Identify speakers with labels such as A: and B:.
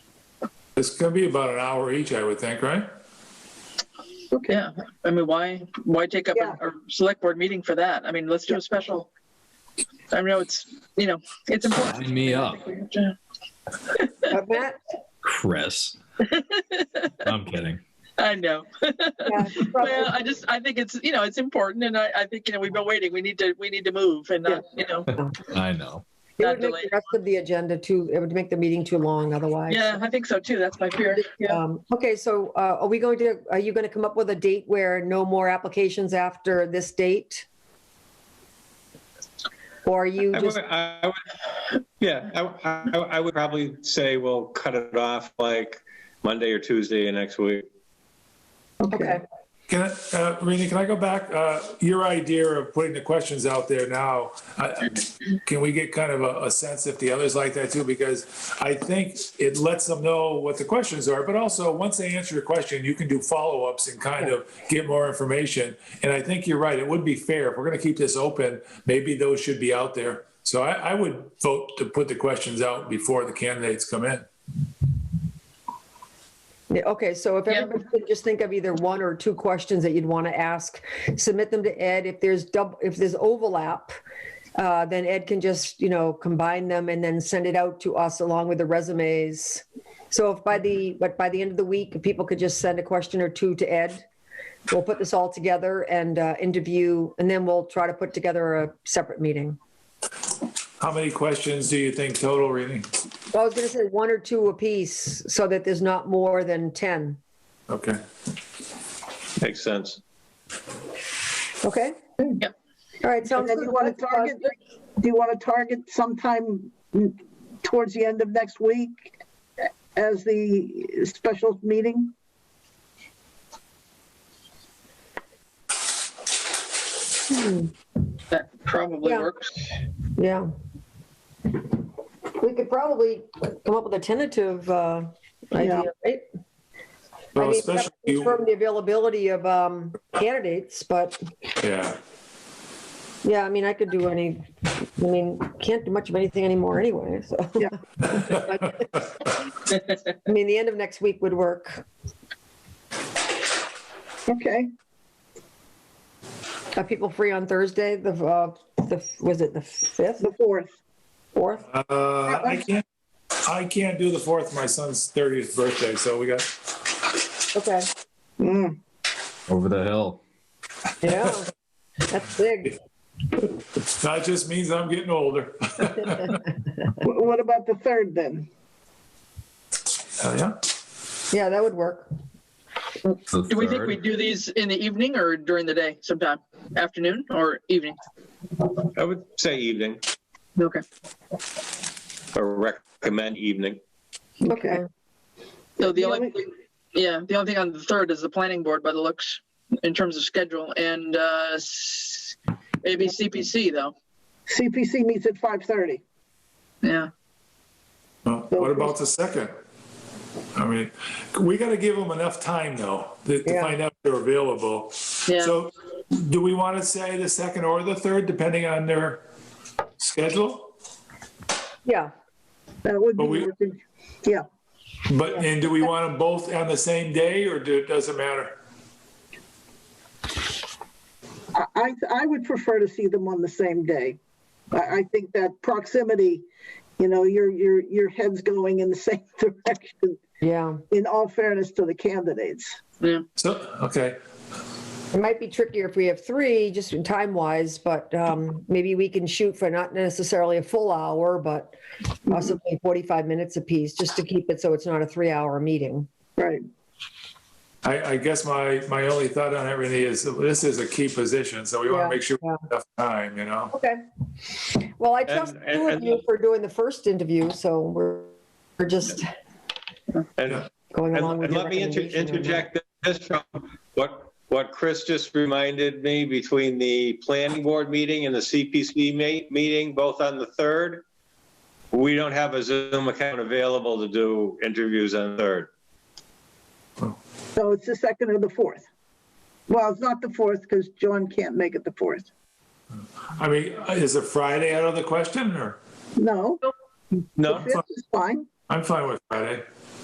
A: It's gonna be about an hour each, I would think, right?
B: Yeah, I mean, why, why take up
C: Yeah.
B: a, a select board meeting for that? I mean, let's do a special. I know it's, you know, it's important.
D: Sign me up,
B: Yeah.
C: Uh, Matt?
D: Chris. I'm kidding.
B: I know.
C: Yeah,
B: Well,
C: probably.
B: I just, I think it's, you know, it's important and I, I think, you know, we've been waiting. We need to, we need to move and, not, you know,
D: I know.
C: It
B: not
C: would make
B: delay.
C: the rest of the agenda too, it would make the meeting too long otherwise.
B: Yeah, I think so too. That's my fear. Yeah.
C: Um, Okay, so uh, are we going to, are you going to come up with a date where no more applications after this date? Or are you
E: I
C: just,
E: would, I would- yeah, I, I, I would probably say we'll cut it off like Monday or Tuesday of next week.
C: okay,
A: Can I, uh, Rini, can I go back? Uh, your idea of putting the questions out there now, I- can we get kind of a, a sense if the others like that too? Because I think it lets them know what the questions are, but also once they answer your question, you can do follow-ups and kind of get more information. And I think you're right. It would be fair. If we're going to keep this open, maybe those should be out there. So I, I would vote to put the questions out before the candidates come in.
C: Yeah, okay, so if
B: Yeah.
C: everybody could just think of either one or two questions that you'd want to ask, submit them to Ed. If there's double, if there's overlap, uh, then Ed can just, you know, combine them and then send it out to us along with the resumes. So if by the, but by the end of the week, if people could just send a question or two to Ed. We'll put this all together and uh, interview, and then we'll try to put together a separate meeting.
A: How many questions do you think total, Rini?
C: Well, I was going to say one or two apiece so that there's not more than 10.
A: Okay.
E: Makes sense.
C: Okay?
B: Yep.
C: All right,
F: And
C: sounds
F: then
C: good.
F: you want to target, do you want to target sometime towards the end of next week as the special meeting?
B: That probably
C: Yeah.
B: works.
C: Yeah. We could probably come up with a tentative uh, idea, right? I
A: Well,
C: mean,
A: especially
C: we have to confirm the availability of um, candidates, but
A: Yeah.
C: yeah, I mean, I could do any, I mean, can't do much of anything anymore anyway, so.
F: Yeah.
A: Uh,
C: I mean, the end of next week would work.
F: Okay,
C: Are people free on Thursday, the, uh, the was it the 5th,
F: the fourth.
C: 4th?
A: Uh, I can't, I can't do the fourth, my son's thirtieth birthday, so we got,
C: Okay,
F: Mm,
D: Over the hill.
C: yeah, that's big.
A: that just means I'm getting older.
F: wh- What about the third then?
A: Uh, Yeah,
C: Yeah, that would work.
D: The
B: Do we think
D: third.
B: we do these in the evening or during the day sometime? Afternoon or evening?
E: I would say evening
B: Okay.
E: or recommend evening.
C: Okay,
B: So the
F: Yeah,
B: only,
F: we-
B: yeah, the only thing on the third is the planning board by the looks in terms of schedule and uh, s- maybe CPC though.
F: CPC meets at 5:30.
B: Yeah.
A: Well, what about the second? I mean, we gotta give them enough time though, to to
C: Yeah.
A: find out if they're available.
B: Yeah.
A: So do we wanna say the second or the third, depending on their schedule?
C: yeah,
F: That would
A: But we-
F: be, working. yeah,
A: But, and do we want them both on the same day or do, does it matter?
F: I- I, I would prefer to see them on the same day. I, I think that proximity, you know, your, your, your head's going in the same direction,
C: yeah.
F: in all fairness to the candidates.
A: So, okay,
C: It might be trickier if we have three, just time wise, but um, maybe we can shoot for not necessarily a full hour, but possibly 45 minutes apiece, just to keep it so it's not a three hour meeting.
F: Right.
A: I, I guess my, my only thought on everything is, this is a key position, so we
C: Yeah,
A: wanna make sure we
C: yeah.
A: have enough time, you know?
C: Okay. Well, I trust
E: And-
C: the two of
E: and-
C: you for doing the first interview, so we're, we're just
E: And,
C: going along
E: and
C: with
E: and
C: your
E: let me inter-
C: recommendation on that.
E: interject this from what, what Chris just reminded me between the planning board meeting and the CPC ma- meeting, both on the third. We don't have a Zoom account available to do interviews on the third.
F: So it's the second or the fourth. Well, it's not the fourth because John can't make it the fourth.
A: I mean, is a Friday out of the question or?
F: No,
E: No?
F: the fifth is fine.
A: I'm fine with Friday.